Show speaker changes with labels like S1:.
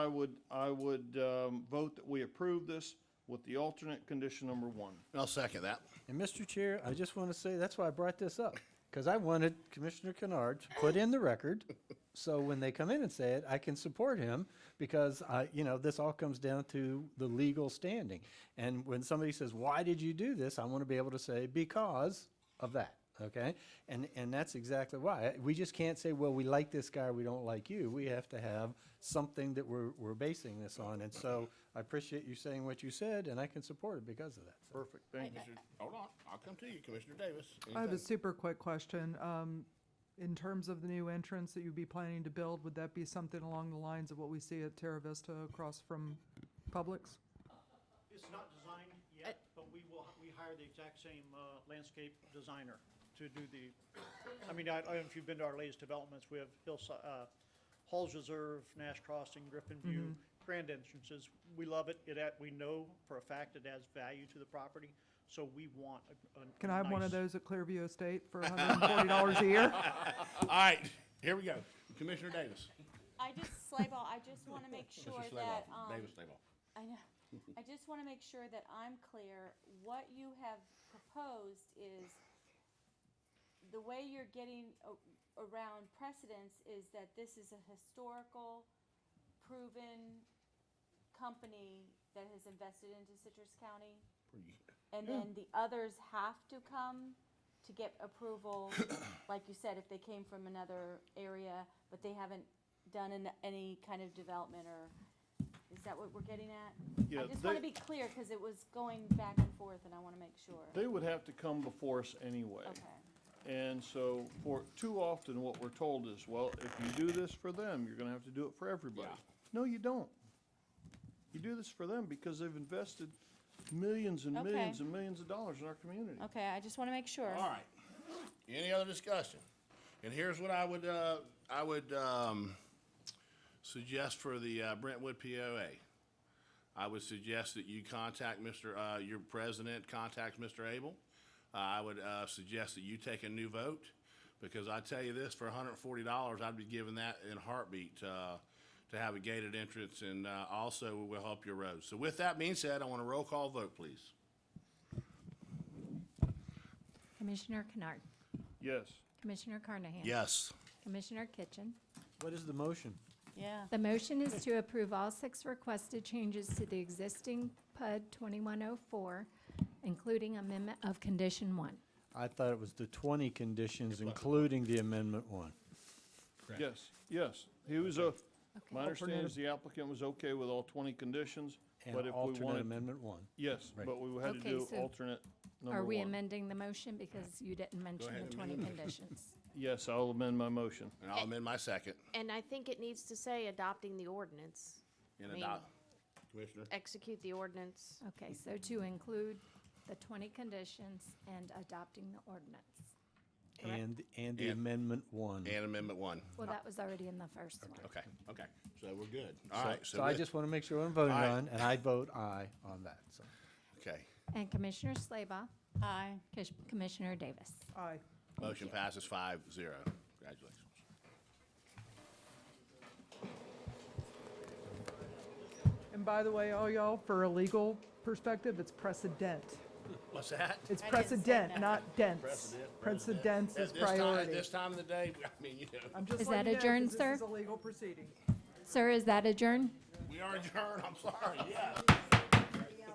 S1: I would, I would um, vote that we approve this with the alternate condition number one.
S2: I'll second that.
S3: And Mr. Chair, I just want to say, that's why I brought this up, because I wanted Commissioner Kennard to put in the record, so when they come in and say it, I can support him, because I, you know, this all comes down to the legal standing. And when somebody says, why did you do this? I want to be able to say, because of that, okay? And, and that's exactly why. We just can't say, well, we like this guy, we don't like you. We have to have something that we're, we're basing this on. And so I appreciate you saying what you said, and I can support it because of that. So-
S1: Perfect, thank you, sir.
S2: Hold on, I'll come to you, Commissioner Davis.
S4: I have a
S2: Anything?
S4: super quick question. Um, In terms of the new entrance that you'd be planning to build, would that be something along the lines of what we see at Terra Vista across from Publix?
S5: It's not designed yet,
S4: Uh,
S5: but we will, we hired the exact same uh, landscape designer to do the, I mean, I I don't know if you've been to our latest developments, we have Hillside, Halls Reserve, Nash Crossing, Griffin
S4: Mm-hmm.
S5: View, grand entrances. We love it, it, add- we know for a fact it adds value to the property, so we want a- a
S4: Can I have one of
S5: nice-
S4: those at Clearview Estate for $140 a year?
S2: All right, here we go. Commissioner Davis.
S6: I just, Slayball, I just want to make sure
S2: Mr.
S6: that,
S2: Slayball,
S6: um,
S2: Davis Slayball.
S6: I know, I just want to make sure that I'm clear. What you have proposed is, the way you're getting a- around precedence is that this is a historical, proven company that has invested into Citrus County. And then the others have to come to get approval, like you said, if they came from another area, but they haven't done an, any kind of development or, is that what we're getting at?
S1: Yeah,
S6: I just wanna
S1: they-
S6: be clear, cause it was going back and forth and I wanna make sure.
S1: They would have to come before us anyway.
S6: Okay,
S1: And so for, too often what we're told is, well, if you do this for them, you're gonna have to do it for everybody.
S2: Yeah.
S1: No, you don't. You do this for them because they've invested millions and
S6: Okay.
S1: millions and millions of dollars in our community.
S6: okay, I just wanna make sure.
S2: All right. Any other discussion? And here's what I would, uh, I would, um, suggest for the uh, Brentwood POA. I would suggest that you contact Mr., uh, your president contacts Mr. Abel. Uh, I would, uh, suggest that you take a new vote, because I tell you this, for hundred and forty dollars, I'd be giving that in a heartbeat, uh, to have a gated entrance, and, uh, also will help your roads. So with that being said, I want a roll call vote, please.
S7: Commissioner Kennard,
S1: Yes,
S7: Commissioner Carnahan.
S2: Yes.
S7: Commissioner Kitchen.
S3: What is the motion?
S6: Yeah.
S7: The motion is to approve all six requested changes to the existing PUD 2104, including amendment of condition one.
S3: I thought it was the 20 conditions, including the amendment one.
S1: yes, yes. He was a, my
S7: Okay.
S1: understanding is the applicant was okay with all twenty conditions,
S3: And
S1: but if we
S3: alternate
S1: wanted
S3: amendment one.
S1: Yes,
S3: Right.
S1: but we had to
S7: Okay,
S1: do
S7: so
S1: alternate number one.
S7: Are we amending the motion because you didn't mention the 20 conditions?
S1: Yes, I'll amend my motion.
S2: And I'll amend my second.
S8: And I think it needs to say adopting the ordinance,
S2: And
S8: mean-
S2: adopt. Commissioner?
S8: execute the ordinance.
S7: Okay, so to include the 20 conditions and adopting the ordinance.
S3: And, and the
S2: And-
S3: amendment one.
S2: And Amendment One.
S7: Well, that was already in the first one.
S2: Okay, okay. So we're good. All
S3: So-
S2: right, so
S3: So I
S2: with-
S3: just want to make sure what I'm voting
S2: All right.
S3: on, and I vote aye on that, so.
S2: Okay,
S7: And Commissioner Slaybaugh,
S6: Aye.
S7: Kish- Commissioner Davis.
S4: Aye.
S2: motion passes five zero. Congratulations.
S4: And by the way, all y'all, for a legal perspective, it's precedent.
S2: What's that?
S4: It's
S6: I didn't say
S4: precedent,
S6: that.
S4: not dense.
S2: President, president.
S4: Precedence
S2: At
S4: is
S2: this time- At
S4: priority.
S2: this time of the day, I mean, you know,
S4: I'm just
S7: Is that
S4: letting you know 'cause
S7: adjourned,
S4: This is
S7: sir?
S4: a legal proceeding.
S7: Sir, is that adjourned?
S2: we are adjourned, I'm sorry, yeah.